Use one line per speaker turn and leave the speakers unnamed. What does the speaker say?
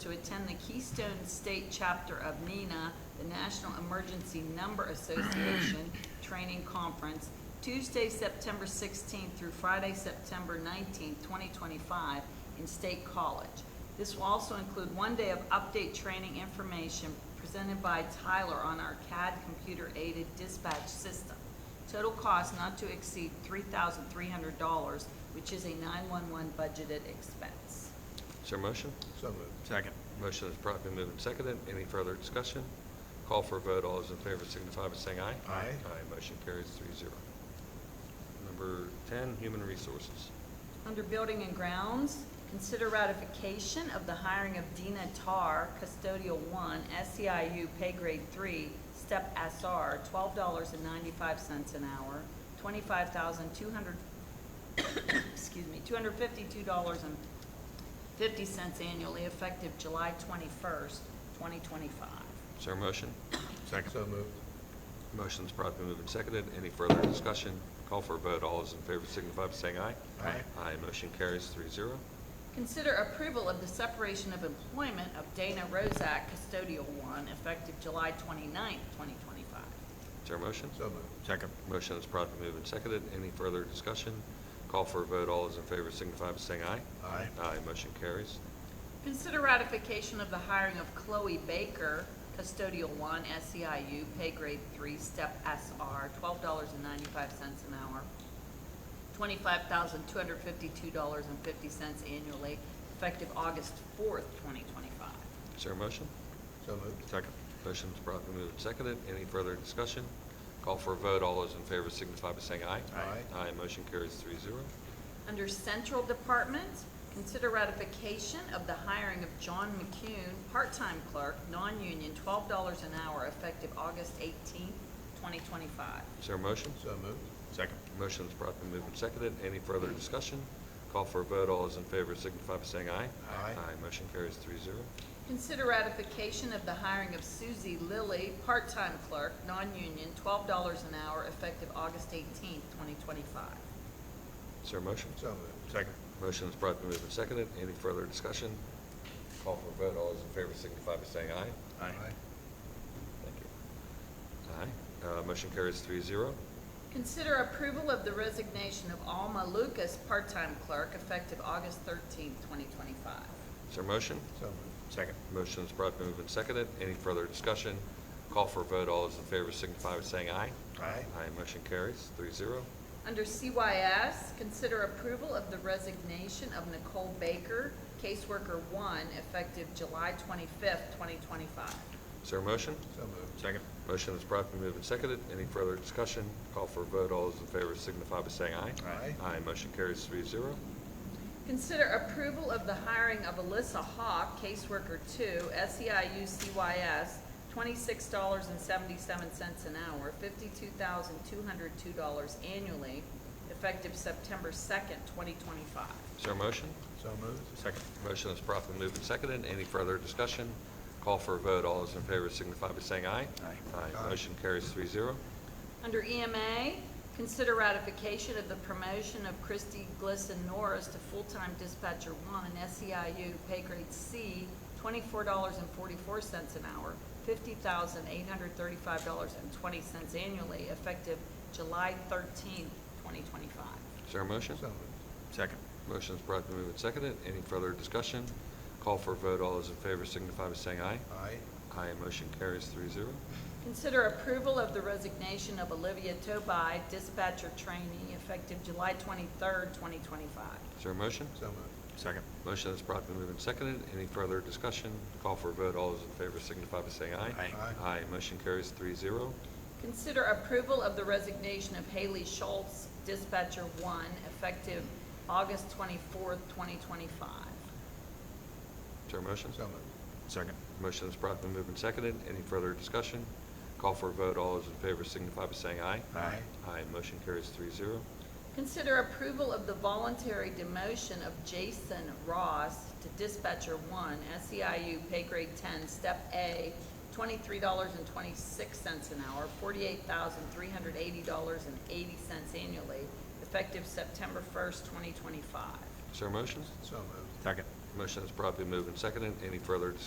to attend the Keystone State Chapter of NINA, the National Emergency Number Association Training Conference, Tuesday, September sixteenth through Friday, September nineteenth, twenty twenty-five, in State College. This will also include one day of update training information presented by Tyler on our CAD computer-aided dispatch system. Total cost not to exceed three thousand three hundred dollars, which is a nine-one-one budgeted expense.
Is there a motion?
So moved.
Second.
Motion is promptly moved and seconded. Any further discussion? Call for a vote. All those in favor signify by saying aye.
Aye.
Aye, motion carries three zero. Number 10, Human Resources.
Under Building and Grounds, consider ratification of the hiring of Dina Tar, Custodial One, SEIU Pay Grade Three, Step SR, twelve dollars and ninety-five cents an hour, twenty-five thousand two hundred, excuse me, two hundred fifty-two dollars and fifty cents annually, effective July twenty-first, twenty twenty-five.
Is there a motion?
Second.
So moved.
Motion is promptly moved and seconded. Any further discussion? Call for a vote. All those in favor signify by saying aye.
Aye.
Aye, motion carries three zero.
Consider approval of the separation of employment of Dana Rozak, custodial one, effective July 29th, 2025.
Is there a motion?
So moved.
Second.
Motion is promptly moved and seconded. Any further discussion? Call for a vote. All those in favor signify by saying aye.
Aye.
Aye, motion carries.
Consider ratification of the hiring of Chloe Baker, custodial one, SEIU, pay grade three, step SR, $12.95 an hour, $25,252.50 annually, effective August 4th, 2025.
Is there a motion?
So moved.
Second. Motion's promptly moved and seconded. Any further discussion? Call for a vote. All those in favor signify by saying aye.
Aye.
Aye, motion carries three zero.
Under Central Department, consider ratification of the hiring of John McCune, part-time clerk, non-union, twelve dollars an hour, effective August eighteenth, twenty twenty-five.
Is there a motion?
So moved.
Second.
Motion's promptly moved and seconded. Any further discussion? Call for a vote. All those in favor signify by saying aye.
Aye.
Aye, motion carries three zero.
Consider ratification of the hiring of Susie Lilly, part-time clerk, non-union, twelve dollars an hour, effective August eighteenth, twenty twenty-five.
Is there a motion?
So moved.
Second.
Motion's promptly moved and seconded. Any further discussion? Call for a vote. All those in favor signify by saying aye. Thank you. Aye, uh, motion carries three zero.
Consider approval of the resignation of Alma Lucas, part-time clerk, effective August thirteenth, twenty twenty-five.
Is there a motion?
So moved.
Second.
Motion is brought, moved, and seconded. Any further discussion? Call for a vote. All those in favor signify by saying aye.
Aye.
Aye, motion carries, three zero.
Under CYS, consider approval of the resignation of Nicole Baker, caseworker one, effective July twenty-fifth, twenty twenty-five.
Is there a motion?
So moved.
Second.
Motion is brought, moved, and seconded. Any further discussion? Call for a vote. All those in favor signify by saying aye.
Aye.
Aye, motion carries, three zero.
Consider approval of the hiring of Alyssa Hawk, caseworker two, E SEIU CYS, twenty-six dollars and seventy-seven cents an hour, fifty-two thousand two hundred two dollars annually, effective September second, twenty twenty-five.
Is there a motion?
So moved.
Second.
Motion is brought, moved, and seconded. Any further discussion? Call for a vote. All those in favor signify by saying aye.
Aye.
Aye,
Aye.
motion carries, three zero.
Under EMA, consider ratification of the promotion of Christy Glisson Norris to full-time dispatcher one, SEIU, pay grade C, twenty-four dollars and forty-four cents an hour, fifty thousand eight hundred thirty-five dollars and twenty cents annually, effective July thirteenth, twenty twenty-five.
Is there a motion?
So moved.
Second.
Motion is brought and moved and seconded. Any further discussion? Call for a vote. All those in favor signify by saying aye.
Aye.
Aye, motion carries three zero.
Consider approval of the resignation of Olivia Tobai, dispatcher trainee, effective July twenty-third, twenty twenty-five.
Is there a motion?
So moved.
Second.
Motion is brought and moved and seconded. Any further discussion? Call for a vote. All those in favor signify by saying aye.
Aye.
Aye.
Aye, motion carries three zero.
Consider approval of the resignation of Haley Schultz, dispatcher one, effective August twenty-fourth, twenty twenty-five.
Is there a motion?
So moved.
Second.
Motion is brought and moved and seconded. Any further discussion? Call for a vote. All those in favor signify by saying aye.
Aye.
Aye, motion carries three zero.
Consider approval of the voluntary demotion of Jason Ross to dispatcher one, SEIU, pay grade ten, step A, twenty-three dollars and twenty-six cents an hour, forty-eight thousand, three hundred eighty dollars and eighty cents annually, effective September first, twenty twenty-five.
Is there a motion?
So moved.
Second.
Motion is properly moved and seconded. Any further discussion?